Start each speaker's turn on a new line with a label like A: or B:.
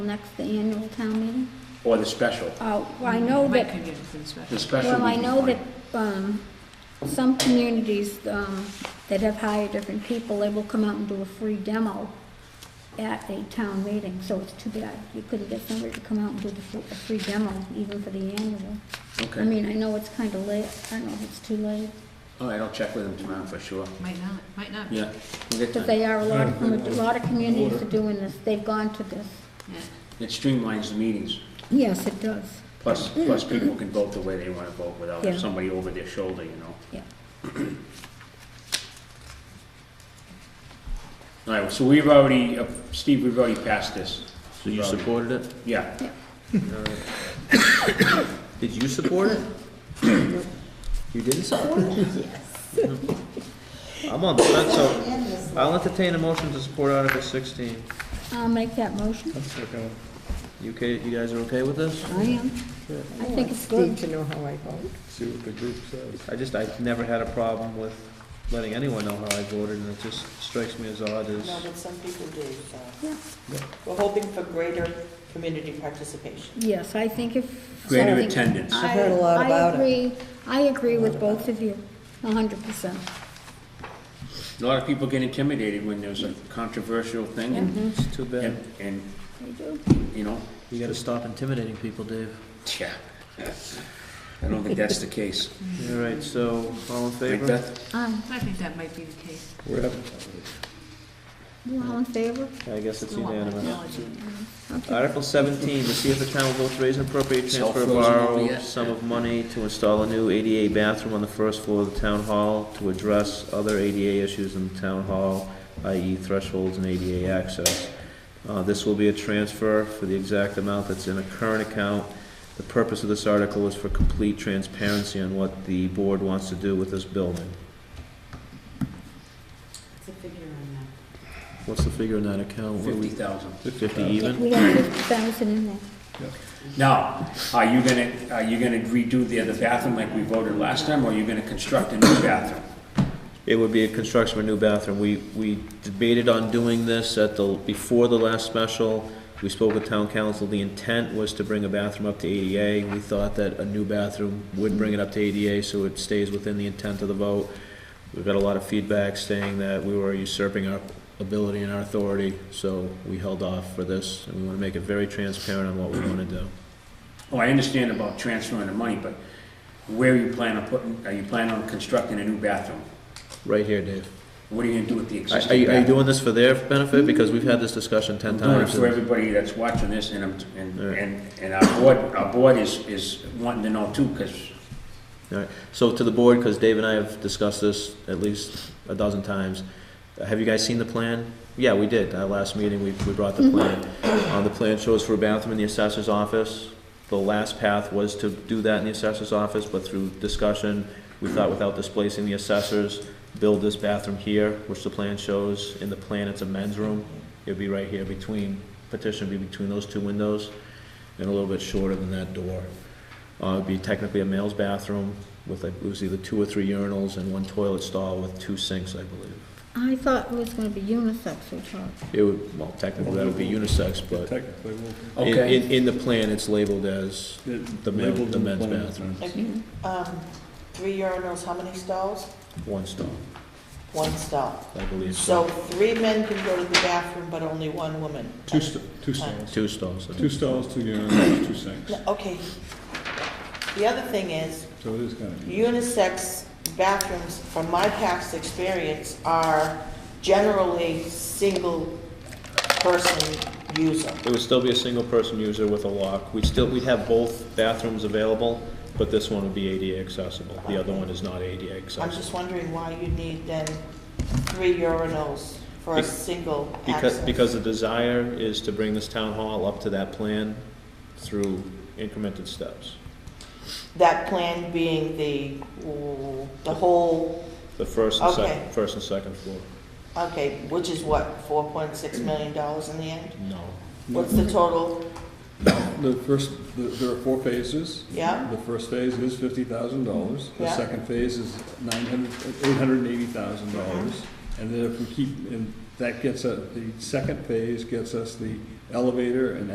A: Next, the annual town meeting?
B: or the special.
A: Uh, well, I know
C: Mike
A: that,
C: could get it for the special.
B: The special
A: well, I
B: would be
A: know that,
B: fine.
A: um, some communities, um, that have hired different people, they will come out and do a free demo at a town meeting, so it's too bad. You couldn't get somebody to come out and do the, fr- a free demo even for the annual. I
B: Okay,
A: mean, I know it's kinda late, I don't know if it's too late,
B: all right, I'll check with them tomorrow for sure.
C: Might not, might not.
B: Yeah, we'll get
A: but
B: time.
A: they are, a lot of, a lot of communities are doing this, they've gone to this.
C: Yeah.
B: It streamlines the meetings,
A: Yes, it does,
B: plus, plus people can vote the way they wanna vote without
A: Mm. Yeah.
B: somebody over their shoulder, you know?
A: yeah.
B: All right, so we've already, uh, Steve, we've already passed this.
D: So you supported it?
B: Yeah,
D: Did you support it? You didn't support it? Yes. I'm on the fence, so I'll entertain a motion to support Article sixteen.
A: I'll make that motion,
D: You okay, you guys are okay with this?
A: I am. I think it's good.
E: to know how I vote.
F: See what the group says.
D: I just, I've never had a problem with letting anyone know how I voted, and it just strikes me as odd as,
E: No, but some people do, so.
A: Yeah.
E: We're hoping for greater community participation.
A: Yes, I think if.
B: greater
A: something-
B: attendance.
A: I-
E: heard a lot about it.
A: I agree, I agree with both of you, a hundred percent.
B: A lot of people get intimidated when there's a controversial thing, and,
D: it's too
A: Mm-hmm.
D: bad.
B: and, and,
A: I do.
B: you know,
D: You gotta stop intimidating people, Dave.
B: yeah. I don't think that's the case.
D: All right, so, all in
B: Right,
D: favor?
B: Beth?
A: Um,
C: I think that might be the case.
A: you all in favor?
D: I guess it's
C: No, I'm not
D: unanimous.
C: acknowledging it.
D: Article seventeen, to see if the town will vote to raise and appropriate
B: Cell
D: transfer or
B: phones and all
D: borrow
B: that.
D: sum of money to install a new ADA bathroom on the first floor of the town hall to address other ADA issues in the town hall, i.e. thresholds and ADA access. Uh, this will be a transfer for the exact amount that's in a current account. The purpose of this article is for complete transparency on what the board wants to do with this building.
E: What's the figure on
D: What's the figure in that account? What do
B: Fifty
D: we-
B: thousand.
D: Fifty even?
A: We have fifty thousand in there.
B: Now, are you gonna, are you gonna redo the other bathroom like we voted last time, or are you gonna construct a new bathroom?
D: It would be a construction of a new bathroom. We, we debated on doing this at the, before the last special. We spoke with town council. The intent was to bring a bathroom up to ADA. We thought that a new bathroom would bring it up to ADA, so it stays within the intent of the vote. We've got a lot of feedback saying that we were usurping our ability and our authority, so we held off for this. And we want to make it very transparent on what we want to do.
B: Oh, I understand about transferring the money, but where are you planning on putting, are you planning on constructing a new bathroom?
D: Right here, Dave.
B: What are you gonna do with the
D: Are,
B: existing
D: are you
B: bathroom?
D: are you doing this for their benefit? Because we've had this discussion ten
B: I'm
D: times.
B: doing it for
D: and-
B: everybody that's watching this, and, I'm- and,
D: Yeah.
B: and, and our board, our board is, is wanting to know too, because
D: All right, so to the board, because Dave and I have discussed this at least a dozen times, Uh, have you guys seen the plan? Yeah, we did, our last meeting, we, we brought the plan. Uh, the plan shows for a bathroom in the assessor's office. The last path was to do that in the assessor's office, but through discussion, we thought without displacing the assessors, build this bathroom here, which the plan shows, in the plan it's a men's room. It'd be right here between, petition would be between those two windows, and a little bit shorter than that door. Uh, it'd be technically a male's bathroom with, like, it was either two or three urinals and one toilet stall with two sinks, I believe.
A: I thought it was gonna be unisex or something.
D: It would, well, technically, that would be unisex, but
F: Technically, we'll.
D: in, in, in the plan, it's labeled as the men-
F: Labeled
D: the
F: in
D: men's
F: plan.
D: bathroom.
E: that? Um, three urinals, how many stalls?
D: one stall,
E: One stall.
D: I believe.
E: So three men can go to the bathroom, but only one woman.
F: Two, st-
E: uh,
F: two stalls,
D: Two stalls. I
F: two
D: think.
F: stalls, two urinals, two sinks,
E: No, Okay. The other thing is,
F: so it is kind of.
E: unisex bathrooms, from my past experience, are generally single-person user.
D: It would still be a single person user with a lock. We'd still, we'd have both bathrooms available, but this one would be ADA accessible. The other one is not ADA
E: I'm
D: accessible.
E: just wondering why you need then three urinals for a
D: Be-
E: single
D: Because,
E: access.
D: because the desire is to bring this town hall up to that plan through incremented steps.
E: That plan being the, the whole,
D: The first and
E: Okay.
D: second, first and second floor.
E: okay, which is what, four point six million dollars in the end?
D: No.
E: What's
D: Mm-hmm.
E: the total?
F: The first, the- there are four phases.
E: Yeah.
F: The first phase is fifty thousand dollars, the
E: Yeah.
F: second phase is nine hundred, eight hundred and eighty thousand
E: Uh-huh.
F: dollars. And then if we keep, and that gets, us- the second phase gets us the elevator and